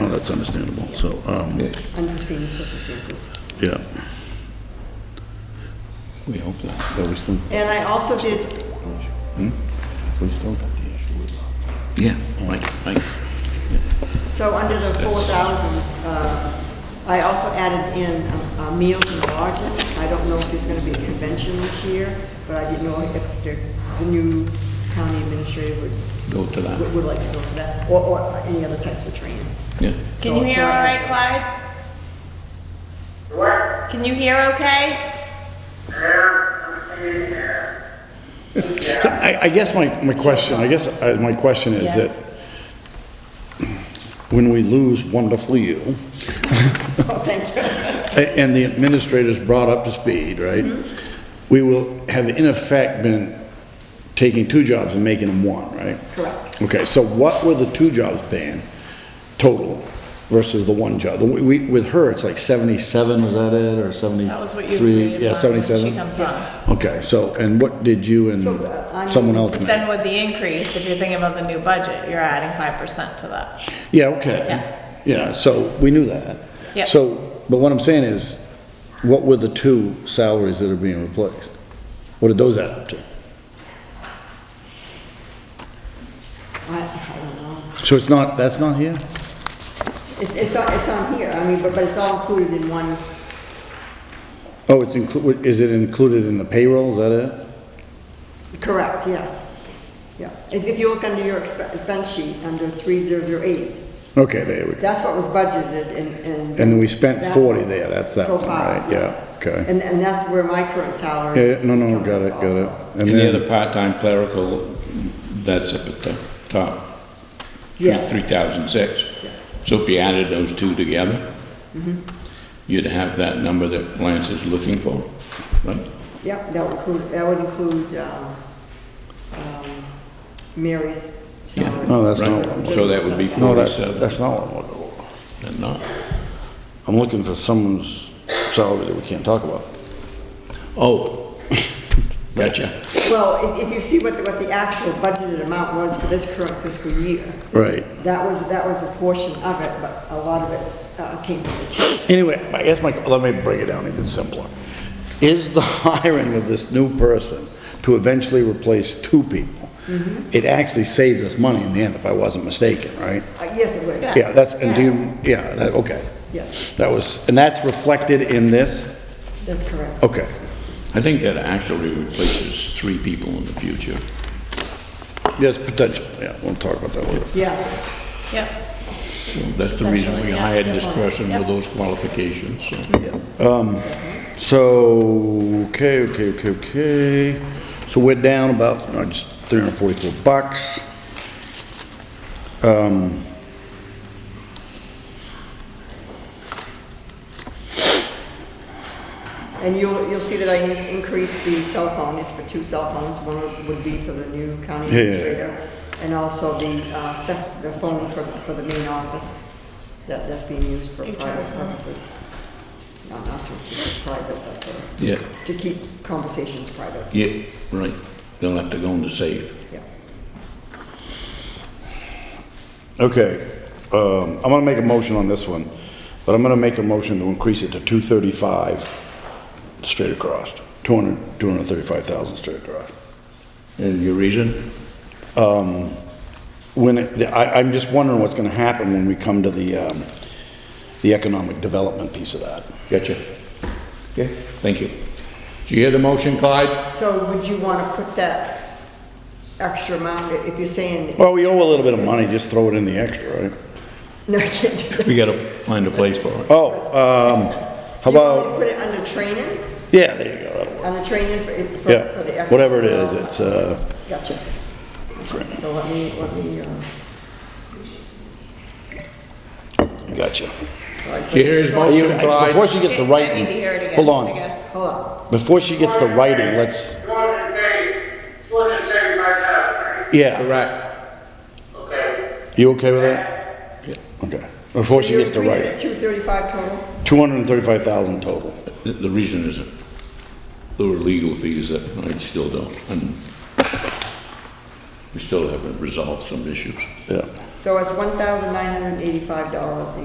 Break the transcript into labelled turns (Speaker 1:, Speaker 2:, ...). Speaker 1: that's understandable, so, um,
Speaker 2: Yeah,
Speaker 3: unforeseen circumstances.
Speaker 1: yeah.
Speaker 2: We hope that, but we still,
Speaker 3: And I also did,
Speaker 2: we still got the issue with.
Speaker 1: Yeah. Mike, Mike,
Speaker 3: so under the four thousands, uh, I also added in uh, uh, meals and lodging. I don't know if there's gonna be a convention this year, but I didn't know if the, the new county administrator would,
Speaker 2: Go to that.
Speaker 3: would- would like to go for that, or, or any other types of training.
Speaker 2: Yeah.
Speaker 4: Can you
Speaker 3: So-
Speaker 4: hear
Speaker 3: so
Speaker 4: all
Speaker 3: I-
Speaker 4: right,
Speaker 5: uh,
Speaker 4: Clyde? What? Can you hear okay?
Speaker 5: So I, I guess my, my question, I guess uh, my question is
Speaker 4: Yeah.
Speaker 5: that when we lose wonderfully you,
Speaker 3: Oh, thank you.
Speaker 5: a- and the administrator's brought up to speed, right?
Speaker 3: Mm-hmm.
Speaker 5: We will have in effect been taking two jobs and making them one, right?
Speaker 3: Correct.
Speaker 5: Okay, so what were the two jobs paying total versus the one job? The- We, with her, it's like seventy-seven, is that it, or seventy-three?
Speaker 4: That was what you agreed upon
Speaker 5: Yeah,
Speaker 4: when she
Speaker 5: seventy-seven?
Speaker 4: comes on.
Speaker 5: Okay, so, and what did you and
Speaker 3: So, uh, I'm-
Speaker 5: someone else make?
Speaker 4: Then with the increase, if you're thinking about the new budget, you're adding five percent to that.
Speaker 5: Yeah, okay. Yeah, so we knew that.
Speaker 4: Yeah.
Speaker 5: So, but what I'm saying is, what were the two salaries that are being replaced? What did those add up to?
Speaker 3: I, I don't know.
Speaker 5: So it's not, that's not here?
Speaker 3: It's, it's, on- it's on here, I mean, but, but it's all included in one,
Speaker 5: Oh, it's inclu, is it included in the payroll, is that it?
Speaker 3: correct, yes. Yeah, if, if you look under your expe- expense sheet, under three zero zero eight,
Speaker 5: Okay, there we go.
Speaker 3: that's what was budgeted and, and.
Speaker 5: And we spent
Speaker 3: that's-
Speaker 5: 40 there, that's that
Speaker 3: So
Speaker 5: one,
Speaker 3: far,
Speaker 5: right? Yeah,
Speaker 3: yes.
Speaker 5: okay.
Speaker 3: And, and that's where my current salary
Speaker 5: Yeah,
Speaker 3: is.
Speaker 5: no,
Speaker 3: is
Speaker 5: no,
Speaker 3: coming
Speaker 5: got it,
Speaker 3: from
Speaker 5: got it.
Speaker 3: also.
Speaker 5: And
Speaker 2: Any
Speaker 5: then,
Speaker 2: other part-time clerical, that's up at the top. Three
Speaker 3: Yes,
Speaker 2: thousand six. So if you added those two together,
Speaker 4: Mm-hmm.
Speaker 2: you'd have that number that Lance is looking for, right?
Speaker 3: yep, that would include, that would include, um, um, Mary's salary.
Speaker 5: No, Oh, that's not-
Speaker 2: Right, so that would be
Speaker 5: no, that's,
Speaker 2: forty-seven,
Speaker 5: that's not what I'm looking for.
Speaker 2: and not,
Speaker 5: I'm looking for someone's salary that we can't talk about.
Speaker 2: oh, gotcha,
Speaker 3: Well, if, if you see what, the- what the actual budgeted amount was for this current fiscal year,
Speaker 5: Right.
Speaker 3: That was, that was a portion of it, but a lot of it uh, came from the TIF.
Speaker 5: Anyway, I guess my, let me break it down even simpler. Is the hiring of this new person to eventually replace two people,
Speaker 3: Mm-hmm.
Speaker 5: it actually saves us money in the end, if I wasn't mistaken, right?
Speaker 3: Uh, Yes, it would,
Speaker 5: Yeah, that's, and do you, yeah, that, okay.
Speaker 3: yes,
Speaker 5: That was, and that's reflected in this?
Speaker 3: that's correct.
Speaker 5: Okay.
Speaker 2: I think that actually replaces three people in the future.
Speaker 5: Yes, potential, yeah, we'll talk about that later.
Speaker 3: Yes,
Speaker 4: Yep.
Speaker 2: So that's the reason we
Speaker 4: Essentially, yeah,
Speaker 2: hired
Speaker 4: good
Speaker 2: this
Speaker 4: point.
Speaker 2: person with
Speaker 4: Yep. Mm-hmm.
Speaker 2: those qualifications, so.
Speaker 5: So, okay, okay, okay, okay. So we're down about, no, just 344 bucks. Um,
Speaker 3: and you'll, you'll see that I in- increased the cell phone, it's for two cell phones, one would be for the new county
Speaker 5: Yeah, yeah,
Speaker 3: administrator, and also the, uh, sep- the phone for, the- for the main office, that, that's being used for private purposes. Not necessarily private, but for,
Speaker 2: Yeah,
Speaker 3: to keep conversations private,
Speaker 2: yeah, right, they'll have to go into save.
Speaker 3: yeah.
Speaker 5: Okay, um, I'm gonna make a motion on this one, but I'm gonna make a motion to increase it to two thirty-five straight across, two hundred, two hundred thirty-five thousand straight across.
Speaker 2: And your reason?
Speaker 5: When, it- I, I'm just wondering what's gonna happen when we come to the, um, the economic development piece of that.
Speaker 2: Gotcha. Okay, thank you. Do you hear the motion, Clyde?
Speaker 3: So would you wanna put that extra amount, if you're saying
Speaker 5: Well, we owe a little bit of money, just throw it in the extra, right?
Speaker 3: No, I can't do that.
Speaker 2: We gotta find a place for it.
Speaker 5: Oh, um, how
Speaker 3: Do you want me to
Speaker 5: about,
Speaker 3: put it under training,
Speaker 5: yeah, there you go, that'll work.
Speaker 3: under training for, for- for the.
Speaker 5: Yeah, whatever it is, it's, uh,
Speaker 3: Gotcha. So let me, let me, uh.
Speaker 5: gotcha.
Speaker 3: all right, so-
Speaker 2: You hear his
Speaker 3: so-
Speaker 2: motion?
Speaker 5: You- Before she gets the
Speaker 4: Okay, I need to
Speaker 5: writing,
Speaker 4: hear it again,
Speaker 5: hold
Speaker 4: I
Speaker 5: on,
Speaker 4: guess.
Speaker 3: Hold on,
Speaker 5: before she gets the writing, let's,
Speaker 6: Two hundred and thirty, two hundred and thirty-five thousand, right?
Speaker 5: yeah.
Speaker 2: Correct.
Speaker 6: Okay.
Speaker 5: You okay with that? Okay.
Speaker 3: so
Speaker 5: Before she
Speaker 3: you're
Speaker 5: gets to
Speaker 3: increasing it
Speaker 5: write,
Speaker 3: two thirty-five total?
Speaker 5: two hundred and thirty-five thousand total.
Speaker 2: The the reason is that there were legal fees that I still don't, and we still haven't resolved some issues.
Speaker 5: Yeah.
Speaker 3: So it's one thousand nine hundred and eighty-five dollars